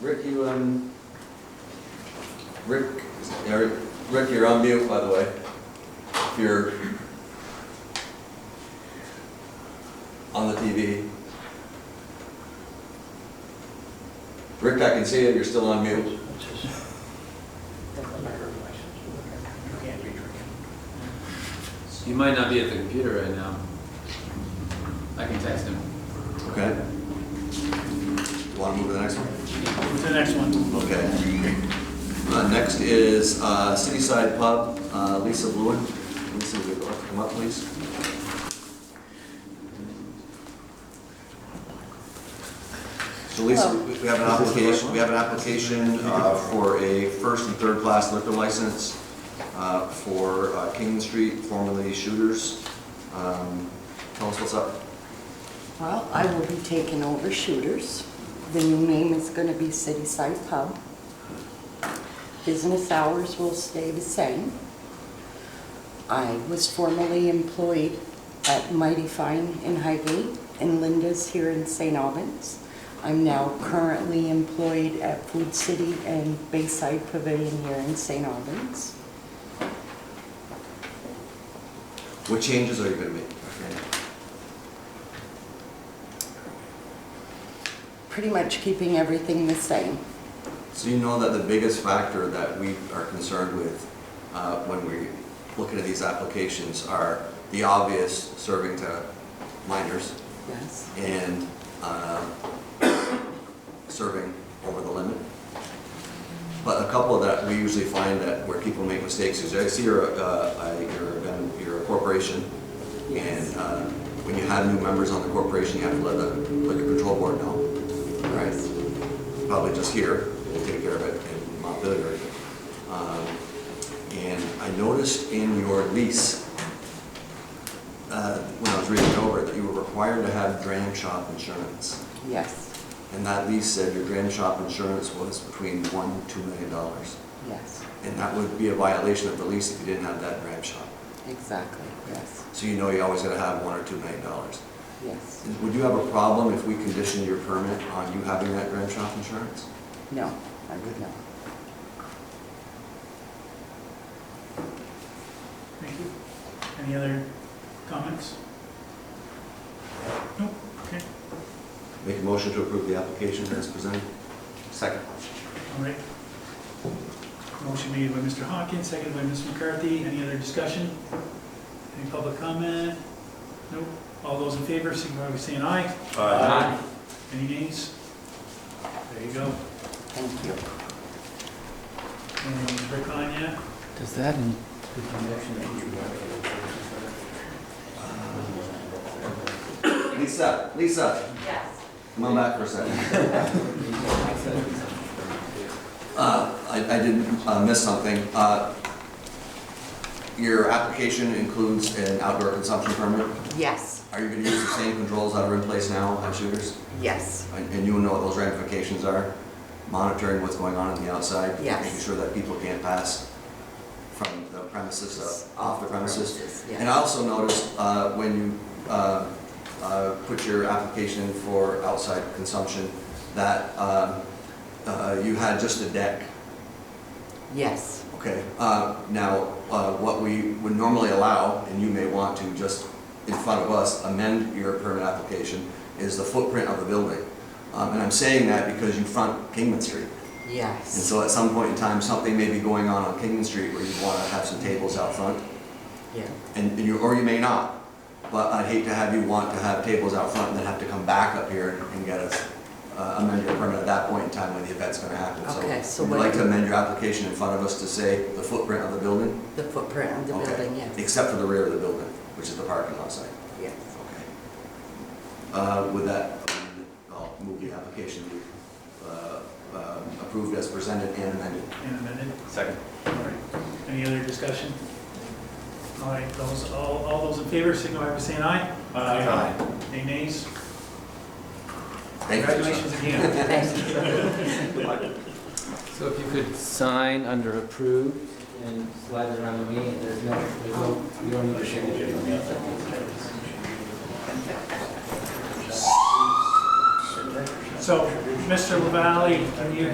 Rick, you, um, Rick, Eric- Rick, you're on mute, by the way. If you're on the TV. Rick, I can see it, you're still on mute. He might not be at the computer right now. I can text him. Okay. Want to move to the next one? To the next one. Okay. Uh, Next is uh, City Side Pub, uh, Lisa Lewin. Lisa, would you like to come up, please? So Lisa, Hello. we we have an application, we have an application uh, for a first and third class liquor license uh, for uh, King Street, formerly Shooters. Um, Tell us what's up. Well, I will be taking over Shooters. The new name is going to be City Side Pub. Business hours will stay the same. I was formerly employed at Mighty Fine in Highgate and Linda's here in St. Albans. I'm now currently employed at Food City and Bayside Pavilion here in St. Albans. What changes are you going to make? Pretty much keeping everything the same. So you know that the biggest factor that we are concerned with uh, when we're looking at these applications are the obvious serving to minors Yes, and um, serving over the limit. But a couple of that, we usually find that where people make mistakes is, I see you're, a- uh, I- you're a gun- you're a corporation, and uh, when you have new members on the corporation, you have to let the liquor control board know, right? probably just here, we'll take care of it in Montpelier. Um, And I noticed in your lease, uh, when I was reading over, it, that you were required to have dram shop insurance. yes, And that lease said your dram shop insurance was between one and two million dollars. yes, And that would be a violation of the lease if you didn't have that dram shop. exactly, yes, So you know you always gotta have one or two million dollars. yes. Would you have a problem if we conditioned your permit on you having that dram shop insurance? No, I would not. Thank you. Any other comments? Nope, okay. Make a motion to approve the application as presented. Second. All right. Motion made by Mr. Hawkins, seconded by Ms. McCarthy. Any other discussion? Any public comment? Nope. All those in favor, signify by saying aye. Any nays? There you go. Thank you. And Rick on yet? Does that, in- Lisa, Lisa, Yes. come on back for a second. Uh, I I did uh, miss something. Uh, Your application includes an outdoor consumption permit. Yes, Are you going to use the same controls that are in place now on shooters? yes, And and you know what those ramifications are? Monitoring what's going on on the outside? Yes. Making sure that people can't pass from the premises, uh, off the premises? And I yes. also noticed uh, when you uh, uh, put your application in for outside consumption, that um, uh, you had just a deck, Yes, okay? Uh, Now, uh, what we would normally allow, and you may want to just in front of us amend your permit application, is the footprint of the building. Um, And I'm saying that because you front Kingman Street. And yes, so at some point in time, something may be going on on Kingman Street where you want to have some tables out front yeah, and and you, or you may not. But I'd hate to have you want to have tables out front and then have to come back up here and- and get us uh, amend your permit at that point in time when the event's gonna happen. Okay, Would so you what- like to amend your application in front of us to say the footprint of the building? the footprint of the Okay. building, yes, Except for the rear of the building, which is the parking lot site. yes. Okay. Uh, With that, I'll move the application to be uh, um, approved as presented and amended. And amended. Second. All right. Any other discussion? All right, those, all, all those in favor, signify by saying aye. Any nays? Thank you. Congratulations again. Thank you. so if you could sign under approved and slide it around to me, and there's no, there's no, you don't need a signature. on that. So, Mr. Lavalley, are you